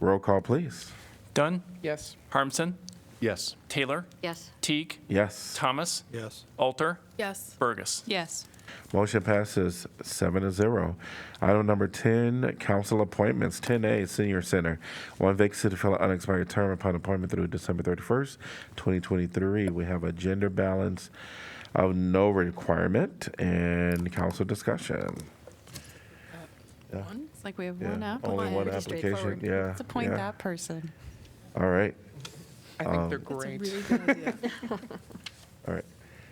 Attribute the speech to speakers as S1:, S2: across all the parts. S1: Roll call, please.
S2: Dunn,
S3: Yes.
S2: Harmson,
S4: Yes.
S2: Taylor,
S5: Yes.
S2: Teague,
S1: Yes.
S2: Thomas,
S4: Yes.
S2: Alter,
S6: Yes.
S2: Burgess.
S6: Yes.
S1: Motion passes seven to zero. Item number 10, council appointments, 10A, Senior Center. One vacancy to fill an unexpired term upon appointment through December 31st, 2023. We have a gender balance of no requirement and council discussion.
S6: One? It's like we have
S1: Yeah,
S6: one app.
S1: Only one
S6: Pretty
S1: application,
S6: straightforward.
S1: yeah.
S6: Let's appoint
S1: yeah.
S6: that person.
S1: All right,
S3: I think they're
S6: That's a
S3: great.
S6: really good idea.
S1: all right.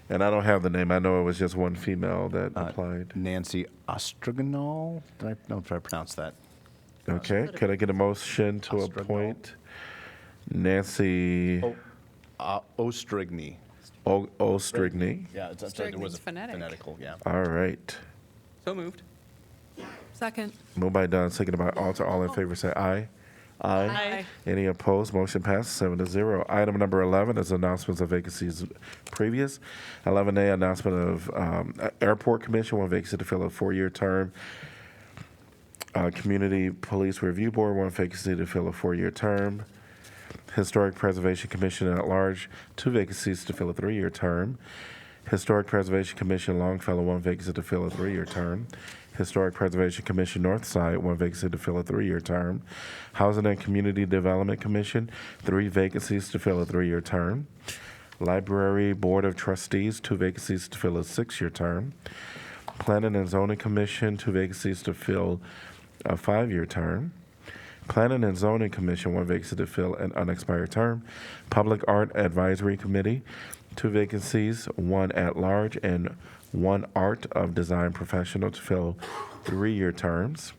S1: And I don't have the name. I know it was just one female that applied.
S4: Nancy Ostrignol? Did I, no, did I pronounce that?
S1: Okay, could I get a motion to
S4: Ostrogol.
S1: appoint Nancy
S4: Oh, uh, Ostrigny.
S1: O- Ostrigny?
S4: Yeah, it's, sorry, there was a
S6: Ostrigny's phonetic.
S4: phonetical, yeah.
S1: All right.
S3: So moved.
S6: Second.
S1: Moved by Dunn, seconded by Alter. All in favor, say aye. Aye. Any opposed? Motion passes seven to zero. Item number 11 is announcements of vacancies previous. 11A, announcement of um, Airport Commission, one vacancy to fill a four-year term. Uh, Community Police Review Board, one vacancy to fill a four-year term. Historic Preservation Commission at large, two vacancies to fill a three-year term. Historic Preservation Commission Longfellow, one vacancy to fill a three-year term. Historic Preservation Commission Northside, one vacancy to fill a three-year term. Housing and Community Development Commission, three vacancies to fill a three-year term. Library Board of Trustees, two vacancies to fill a six-year term. Planning and Zoning Commission, two vacancies to fill a five-year term. Planning and Zoning Commission, one vacancy to fill an unexpired term. Public Art Advisory Committee, two vacancies, one at-large and one Art of Design Professional to fill three-year terms.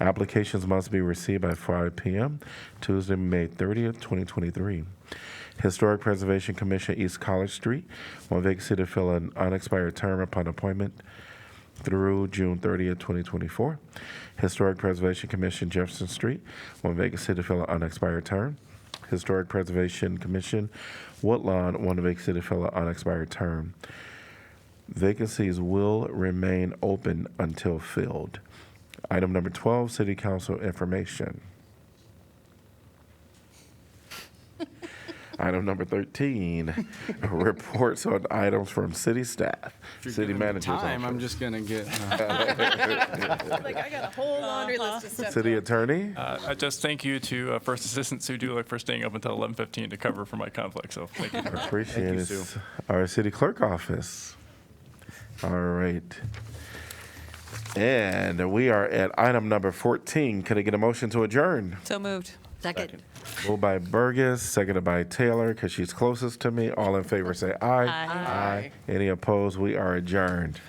S1: Applications must be received by 5 p.m. Tuesday, May 30th, 2023. Historic Preservation Commission, East College Street, one vacancy to fill an unexpired term upon appointment through June 30th, 2024. Historic Preservation Commission, Jefferson Street, one vacancy to fill an unexpired term. Historic Preservation Commission, Woodlawn, one vacancy to fill an unexpired term. Vacancies will remain open until filled. Item number 12, City Council Information. Item number 13, reports on items from city staff, city managers.
S7: Time,
S1: office.
S7: I'm just gonna get.
S6: Like, I got a whole laundry list of stuff.
S1: City Attorney?
S2: Uh, I just thank you to uh, First Assistant Sue Dulick for staying up until 11:15 to cover for my conflict, so thank you.
S1: Appreciate
S4: you,
S1: it.
S4: Sue.
S1: Our city clerk office. All right. And we are at item number 14. Can I get a motion to adjourn?
S6: So moved.
S5: Second.
S1: Moved by Burgess, seconded by Taylor, because she's closest to me. All in favor, say aye.
S6: Aye.
S1: Any opposed? We are adjourned.